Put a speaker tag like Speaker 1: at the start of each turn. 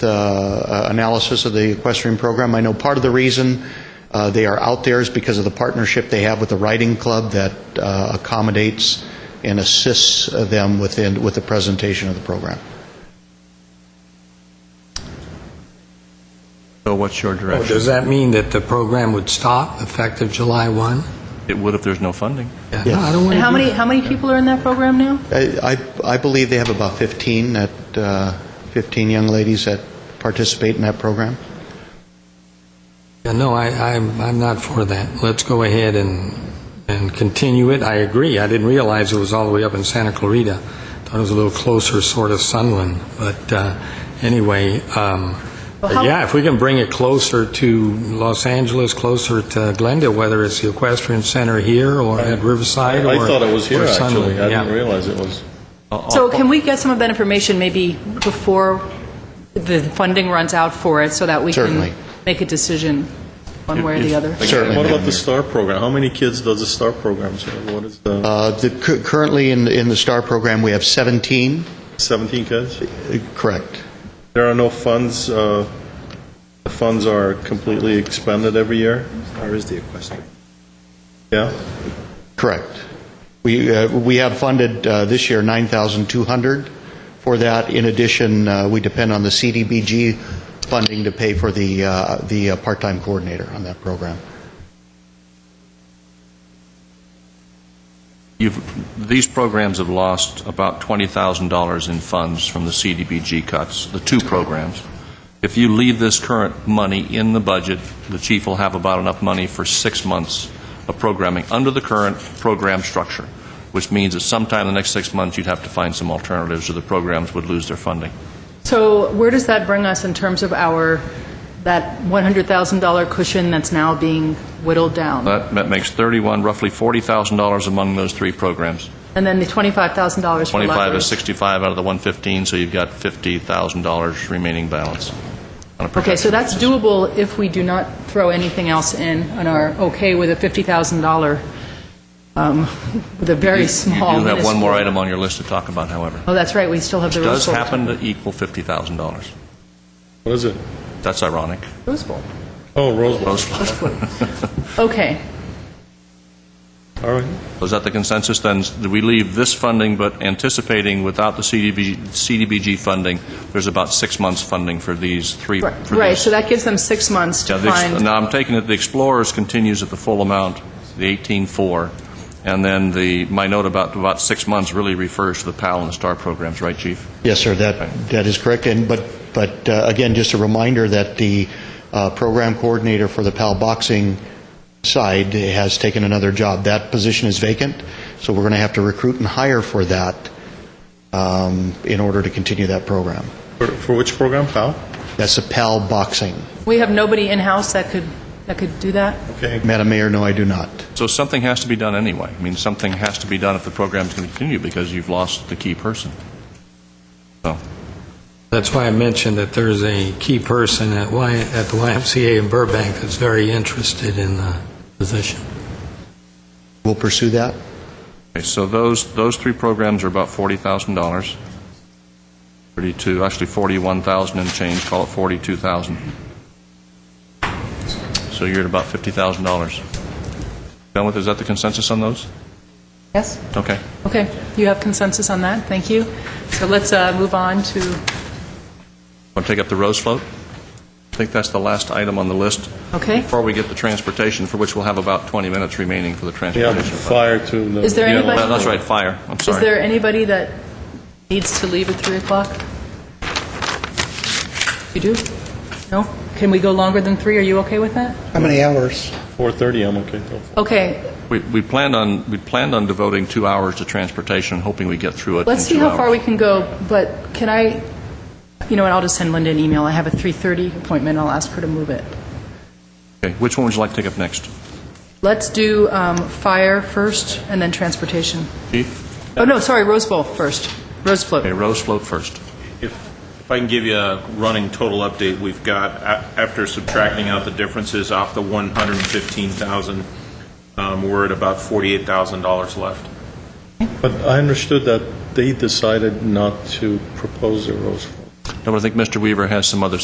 Speaker 1: the uh, analysis of the equestrian program. I know part of the reason uh, they are out there is because of the partnership they have with the riding club that uh, accommodates and assists uh, them within, with the presentation of the program.
Speaker 2: So what's your
Speaker 3: Well,
Speaker 2: direction?
Speaker 3: Oh, Does that mean that the program would stop effective July 1?
Speaker 2: It would if there's no funding.
Speaker 3: Yeah, No, I don't want to
Speaker 4: And how
Speaker 3: do
Speaker 4: many, how many people are in that program now?
Speaker 1: I, I I believe they have about 15, that, uh, 15 young ladies that participate in that program.
Speaker 3: Yeah, No, I, I'm, I'm not for that. Let's go ahead and, and continue it. I agree. I didn't realize it was all the way up in Santa Clarita. Thought it was a little closer, sort of Sunland. But uh, anyway, um,
Speaker 4: Well, how-
Speaker 3: yeah, if we can bring it closer to Los Angeles, closer to Glendale, whether it's the Equestrian Center here or at Riverside or
Speaker 5: I thought it was here,
Speaker 3: or Sunland,
Speaker 5: actually. I
Speaker 3: yeah.
Speaker 5: didn't realize it was.
Speaker 2: Uh,
Speaker 4: So can we get some of that information maybe before the funding runs out for it, so that we
Speaker 1: Certainly.
Speaker 4: can make a decision one way or the other?
Speaker 1: Certainly.
Speaker 5: What about the STAR program? How many kids does the STAR program serve? What is the,
Speaker 1: Uh, the- cu- Currently, in, in the STAR program, we have 17,
Speaker 5: 17 kids?
Speaker 1: Uh, correct.
Speaker 5: There are no funds, uh, the funds are completely expended every year? Or is the equestrian? Yeah?
Speaker 1: Correct. We, uh, we have funded uh, this year 9,200 for that. In addition, uh, we depend on the CDBG funding to pay for the, uh, the uh, part-time coordinator on that program.
Speaker 2: You've, these programs have lost about $20,000 in funds from the CDBG cuts, the two programs. If you leave this current money in the budget, the chief will have about enough money for six months of programming under the current program structure, which means that sometime in the next six months, you'd have to find some alternatives, or the programs would lose their funding.
Speaker 4: So where does that bring us in terms of our, that $100,000 cushion that's now being whittled down?
Speaker 2: That that makes 31, roughly $40,000 among those three programs.
Speaker 4: And then the $25,000
Speaker 2: 25
Speaker 4: for
Speaker 2: is
Speaker 4: libraries?
Speaker 2: 65 out of the 115, so you've got $50,000 remaining balance. on a
Speaker 4: Okay, so
Speaker 2: projection.
Speaker 4: that's doable if we do not throw anything else in and are okay with a $50,000, um, with a very small...
Speaker 2: You do have one more
Speaker 4: minuscule-
Speaker 2: item on your list to talk about, however.
Speaker 4: Oh, that's right, we still have the Rose
Speaker 2: Does
Speaker 4: Bowl.
Speaker 2: happen to equal $50,000.
Speaker 5: What is it?
Speaker 2: That's ironic.
Speaker 4: Rose Bowl.
Speaker 5: Oh, Rose Bowl.
Speaker 4: Okay.
Speaker 5: All right.
Speaker 2: Is that the consensus, then? Do we leave this funding, but anticipating without the CDBG CDBG funding, there's about six months' funding for these three? for
Speaker 4: Right,
Speaker 2: these-
Speaker 4: so that gives them six months
Speaker 2: Yeah,
Speaker 4: to
Speaker 2: the ex-
Speaker 4: find...
Speaker 2: Now, I'm taking it the Explorers continues at the full amount, the 18.4, and then the, my note about, about six months really refers to the PAL and the STAR programs, right, Chief?
Speaker 1: Yes, sir, that, that is correct. And, but, but uh, again, just a reminder that the uh, program coordinator for the PAL boxing side has taken another job. That position is vacant, so we're going to have to recruit and hire for that um, in order to continue that program.
Speaker 5: For- For which program, pal?
Speaker 1: That's the PAL boxing.
Speaker 4: We have nobody in-house that could, that could do that?
Speaker 5: Okay.
Speaker 1: Madam Mayor, no, I do not.
Speaker 2: So something has to be done anyway. I mean, something has to be done if the program's going to continue, because you've lost the key person. So,
Speaker 3: That's why I mentioned that there's a key person at Y, at the YMCA in Burbank that's very interested in the position.
Speaker 1: We'll pursue that.
Speaker 2: okay, so those, those three programs are about $40,000, 32, actually 41,000 and change, call it 42,000. So you're at about $50,000. Done with, is that the consensus on those?
Speaker 4: Yes.
Speaker 2: Okay.
Speaker 4: Okay, you have consensus on that, thank you. So let's uh, move on to,
Speaker 2: Want to take up the Rose Float? I think that's the last item on the list.
Speaker 4: Okay.
Speaker 2: Before we get to transportation, for which we'll have about 20 minutes remaining for the
Speaker 5: Yeah,
Speaker 2: transportation. fund.
Speaker 5: fire to the.
Speaker 4: Is there
Speaker 5: yeah,
Speaker 4: anybody-
Speaker 2: Uh, That's right, fire, I'm
Speaker 4: is
Speaker 2: sorry.
Speaker 4: there anybody that needs to leave at 3 o'clock? You do? No? Can we go longer than 3, are you okay with that?
Speaker 6: How many hours?
Speaker 5: 4:30, I'm okay. till
Speaker 4: Okay,
Speaker 2: We we planned on, we planned on devoting two hours to transportation, hoping we get through it in
Speaker 4: let's see
Speaker 2: two
Speaker 4: how far
Speaker 2: hours.
Speaker 4: we can go, but can I, you know, and I'll just send Linda an email, I have a 3:30 appointment, I'll ask her to move it.
Speaker 2: Okay, which one would you like to take up next?
Speaker 4: Let's do um, fire first, and then transportation.
Speaker 2: Chief?
Speaker 4: Oh, no, sorry, Rose Bowl first. Rose float.
Speaker 2: Okay, Rose Float first.
Speaker 7: If, if I can give you a running total update, we've got, a- after subtracting out the differences off the 115,000, um, we're at about $48,000 left.
Speaker 5: But I understood that they decided not to propose a Rose Bowl.
Speaker 2: No, but I think Mr. Weaver has some other